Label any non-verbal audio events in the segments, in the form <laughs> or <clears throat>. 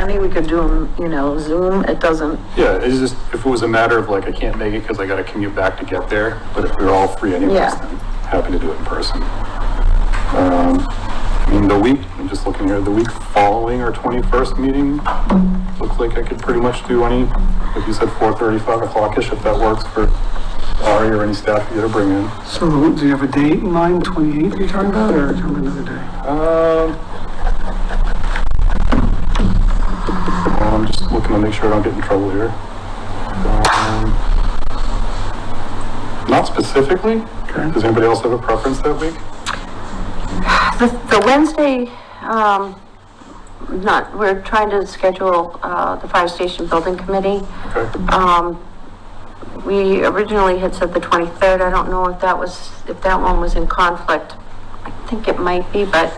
money, we could do them, you know, Zoom, it doesn't, Yeah, it's just, if it was a matter of like, I can't make it because I gotta commute back to get there, but if we we're all free anyways, Yeah. then happy to do it in person. Um, I mean, the week, I'm just looking here, the week following our twenty-first meeting, looks like I could pretty much do any, like you said, four thirty, five o'clock-ish, if that works for Ari or any staff you gotta bring in. So do you have a date in mind, 28th you're talking about, or talking about another day? Um, I'm just looking to make sure I don't get in trouble here. Um, Not specifically. Okay. Does anybody else have a preference that week? The, the Wednesday, um, not, we're trying to schedule, uh, the fire station building committee. Okay, Um, we originally had said the twenty-third, I don't know if that was, if that one was in conflict. I think it might be, but,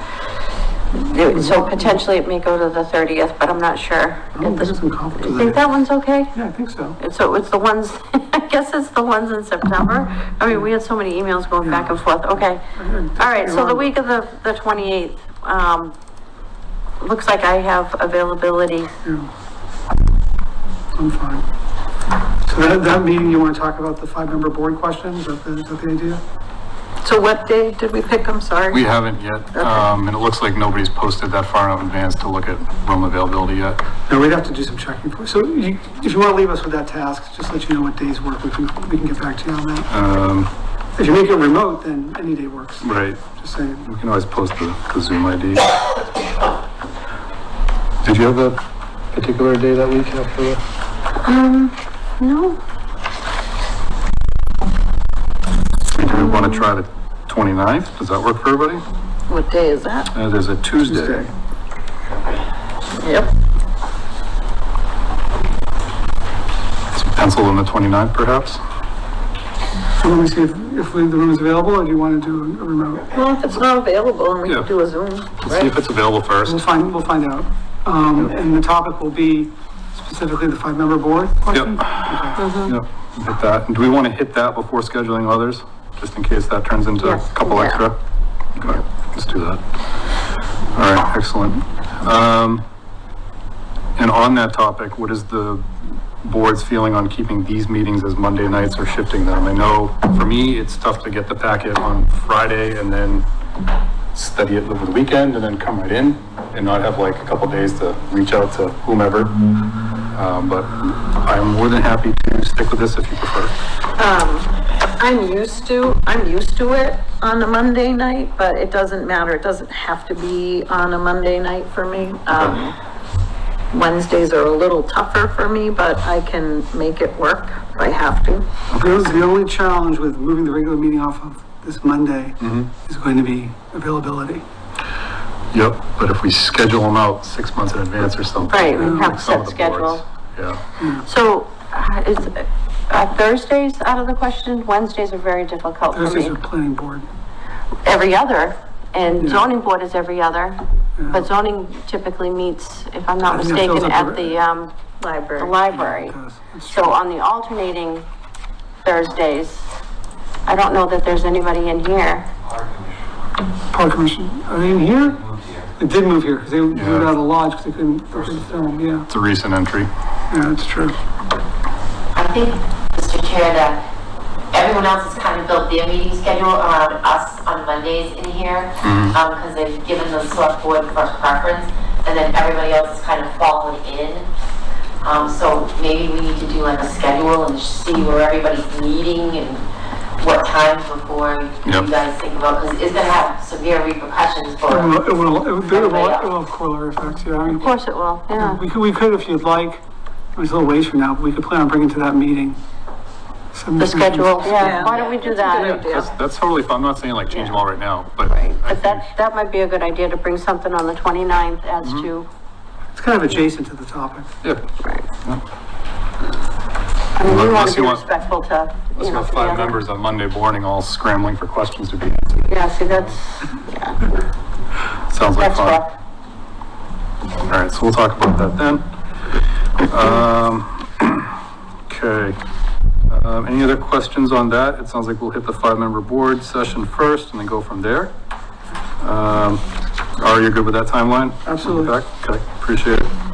so potentially it may go to the thirtieth, but I'm not sure. I don't think it's in conflict You with think that. that one's okay? Yeah, I think so. And so it's the ones, <laughs> I guess it's the ones in September. I mean, we had so many emails going back and forth. Okay. All right, so the week of the, the twenty-eighth, um, looks like I have availability. I'm fine. So that, that meeting, you want to talk about the five-member board question? Is that the, is that the idea? so what day did we pick, I'm sorry? we haven't yet, um, and it looks like nobody's posted that far enough in advance to look at room availability yet. No, we'd have to do some checking for, so you, if you want to leave us with that task, just let you know what days work, we can, we can get back to you on that. Um, If you make it remote, then any day works, right, just saying. we can always post the, the Zoom ID. Did you have a particular day that week after the? No, Do we want to try the 29th? Does that work for everybody? What day is that? Uh, there's a Tuesday. Tuesday. Yep. Pencil in the 29th perhaps? So let me see if, if we- the room is available, or do you want to do a remote? Well, if it's not available, and we Yeah. can do a Zoom, Let's see right? if it's available We'll first. find, we'll find out. Um, and the topic will be specifically the five-member board question? Okay. Mm-hmm. Yep, hit that. And do we want to hit that before scheduling others? Just in case that turns into a Yes, couple yeah. extra? Okay, let's do that. All right, excellent. Um, and on that topic, what is the board's feeling on keeping these meetings as Monday nights or shifting them? I know for me, it's tough to get the packet on Friday and then study it over the weekend and then come right in and not have like a couple days to reach out to whomever. Um, but I'm more than happy to stick with this if you prefer. I'm used to, I'm used to it on a Monday night, but it doesn't matter, it doesn't have to be on a Monday night for me. Um, Wednesdays are a little tougher for me, but I can make it work if I have to. That was the only challenge with moving the regular meeting off of this Monday is going to be availability. Yep, but if we schedule them out six months in advance or something. Right, we have like some of set the boards, schedule. Yeah, so uh, is, uh, Thursdays out of the question? Wednesdays are very difficult for Thursdays me. are planning board. Every other, and zoning board is every other. But zoning typically meets, if I'm not I think that fills mistaken, up at the- the, um, the Library. library. Yes, that's true. So on the alternating Thursdays, I don't know that there's anybody in here. Park commission, are they in here? They did move here because they moved Yeah. out of the lodge because they couldn't, they couldn't film, yeah, it's a recent entry. yeah, that's true. I think, Mr. Chair, that everyone else has kind of built their meeting schedule around us on Mondays in here, um, because they've given the select board first preference, and then everybody else has kind of fallen in. Um, so maybe we need to do like a schedule and see where everybody's meeting and what times before Yep. you guys think about, because it's gonna have severe repercussions for. It will, it will, it will- it will it will have corollary effects, yeah, I mean, Of course it will, yeah. We could, we could if you'd like, it was a little ways from now, but we could plan on bringing to that meeting. some Mm-hmm. The different- schedule, Yeah. yeah, why don't we do Yeah. that? That's, that's totally, fine. I'm not saying like change them all right now, but Right, I but think, that, that might be a good idea to bring something on the 29th as Mm-hmm. to, It's kind of adjacent to the topic. yeah. I mean, we want Unless to be you want- respectful to, Let's you know, have to the five other- members on Monday morning all scrambling for questions to be answered. Yeah, see, that's, Sounds like that's fun. rough. All right, so we'll talk about that then. Um, <clears throat> okay. Um, any other questions on that? It sounds like we'll hit the five-member board session first and then go from there. Um, are you good with that timeline? Absolutely. Okay, appreciate it.